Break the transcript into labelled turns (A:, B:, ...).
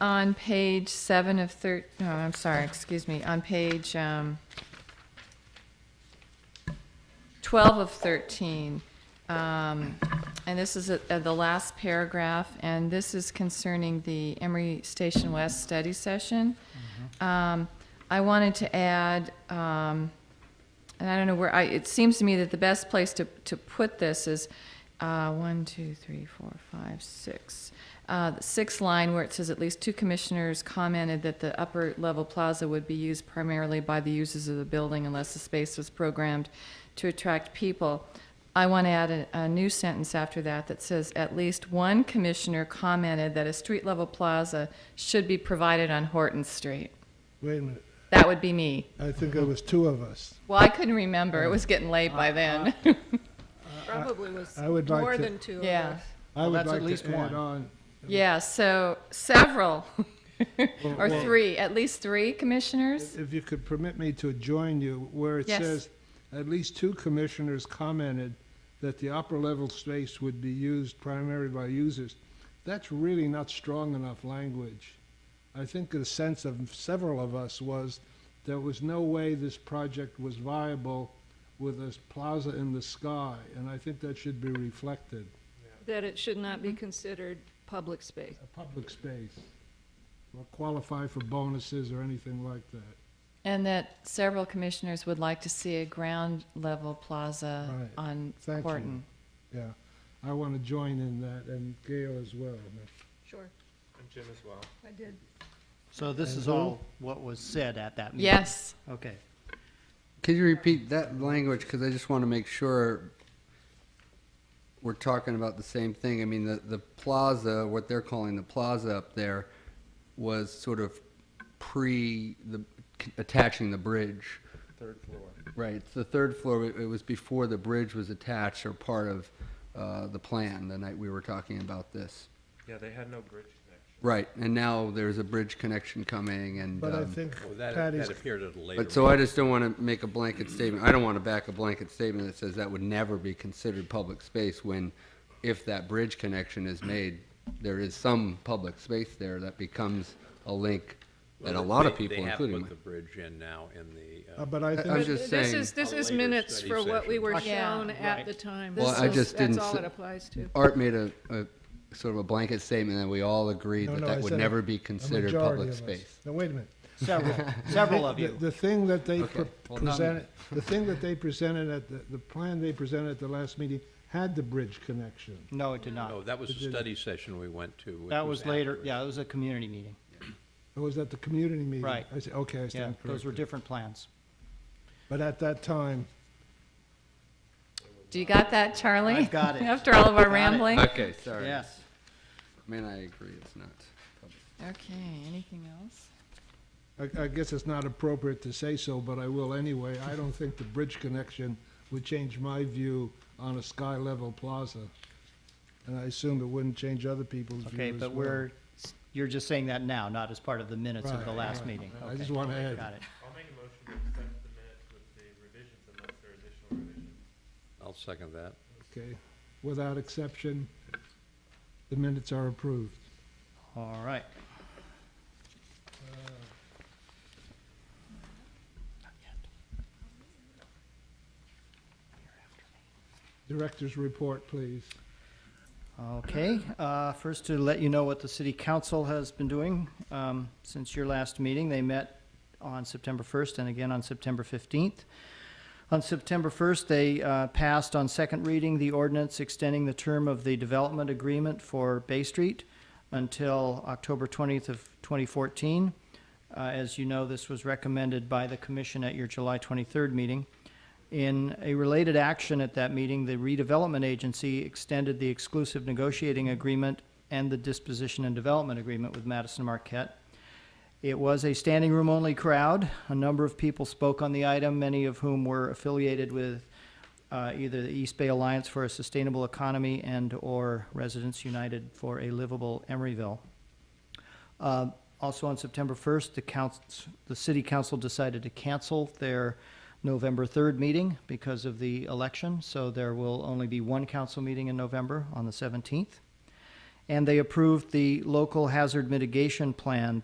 A: on page seven of thir, no, I'm sorry, excuse me, on page, um, twelve of thirteen, um, and this is at, at the last paragraph, and this is concerning the Emory Station West study session. Um, I wanted to add, um, and I don't know where, I, it seems to me that the best place to, to put this is, uh, one, two, three, four, five, six. Uh, the sixth line where it says at least two commissioners commented that the upper level plaza would be used primarily by the users of the building unless the space was programmed to attract people. I want to add a, a new sentence after that that says at least one commissioner commented that a street level plaza should be provided on Horton Street.
B: Wait a minute,
A: That would be me.
B: I think it was two of us.
A: Well, I couldn't remember. It was getting late by then.
C: Probably was
B: I would like
C: more
B: to-
C: than two of
A: Yeah.
C: us.
B: I would
D: that's at
B: like
D: least
B: to add
D: one.
B: on,
A: Yeah, so several, or
B: well-
A: three, at least three commissioners?
B: if you could permit me to join you, where it
A: Yes.
B: says, at least two commissioners commented that the upper level space would be used primarily by users. That's really not strong enough language. I think the sense of several of us was there was no way this project was viable with a plaza in the sky, and I think that should be reflected,
C: That it should not
B: Mm-hmm.
C: be considered public space.
B: a public space, or qualify for bonuses or anything like that.
A: And that several commissioners would like to see a ground level plaza
B: Right.
A: on
B: Thank you.
A: Horton.
B: Yeah, I want to join in that, and Gail as well.
C: Sure,
E: And Jim as well.
C: I did.
D: So this is all what was said at that meeting?
A: Yes,
D: Okay.
F: Could you repeat that language? Because I just want to make sure we're talking about the same thing. I mean, the, the plaza, what they're calling the plaza up there, was sort of pre the attaching the bridge.
E: Third floor.
F: Right, it's the third floor. It it was before the bridge was attached or part of uh, the plan the night we were talking about this.
E: Yeah, they had no bridge connection.
F: Right, and now there's a bridge connection coming, and
B: But I
F: um,
B: think
E: Well, that,
B: Patty's,
E: that appeared at a later.
F: But so I just don't want to make a blanket statement. I don't want to back a blanket statement that says that would never be considered public space when, if that bridge connection is made, there is some public space there that becomes a link that a lot of
E: They-
F: people,
E: They have
F: including
E: put the
F: me.
E: bridge in now in the,
B: uh,
E: uh,
B: but I
F: I-
B: think,
F: I'm just
C: This
F: saying-
C: is, this
E: A
C: is
E: later
C: minutes
E: study
C: for what we
E: session.
C: were
A: Yeah.
C: shown at the time.
F: Well,
C: This
F: I
C: is-
F: just didn't
C: That's all
F: say-
C: it applies to.
F: Art made a, a sort of a blanket statement that we all agreed
B: No,
F: that
B: no, I
F: that
B: said
F: would
B: a-
F: never be
B: a
F: considered
B: majority of
F: public
B: us.
F: space.
B: Now, wait a minute.
D: Several, several of
B: The-
D: you.
B: The thing that they
F: Okay,
B: pre-
F: well, none.
B: presented, the thing that they presented at, the the plan they presented at the last meeting had the bridge connection.
D: No, it did
E: no,
D: not.
E: oh, that was
B: It
E: a
B: didn't.
E: study session we went to. which
D: That was later,
E: afterwards.
D: yeah, it was a community meeting.
B: It was at the community meeting.
D: Right.
B: I said, okay, I
D: Yeah,
B: stand
D: those were
B: corrected.
D: different plans.
B: But at that time,
A: do you got that, Charlie?
D: I've got it.
A: After all of our
D: Got it.
A: rambling?
F: Okay, sorry.
D: Yes.
F: Man, I agree, it's not. public.
A: Okay, anything else?
B: I, I guess it's not appropriate to say so, but I will anyway. I don't think the bridge connection would change my view on a sky level plaza. And I assume it wouldn't change other people's view
D: Okay,
B: as
D: but
B: well.
D: we're, you're just saying that now, not as part of the minutes of the
B: Right,
D: last
B: right.
D: meeting.
B: I just
D: Okay,
B: wanna add-
D: Got it.
G: I'll make a motion to accept the minutes with the revisions unless there are additional revisions.
E: I'll second that.
B: Okay, without exception, the minutes are approved.
D: All right.
B: Director's report, please.
D: Okay, uh, first to let you know what the city council has been doing um, since your last meeting. They met on September 1st and again on September 15th. On September 1st, they uh, passed on second reading the ordinance extending the term of the development agreement for Bay Street until October 20th of 2014. Uh, As you know, this was recommended by the commission at your July 23rd meeting. In a related action at that meeting, the redevelopment agency extended the exclusive negotiating agreement and the disposition and development agreement with Madison Marquette. It was a standing room only crowd. A number of people spoke on the item, many of whom were affiliated with uh, either the East Bay Alliance for a Sustainable Economy and or Residents United for a Livable Emeryville. Uh, Also on September 1st, the council, the city council decided to cancel their November 3rd meeting because of the election, so there will only be one council meeting in November on the 17th. And they approved the local hazard mitigation plan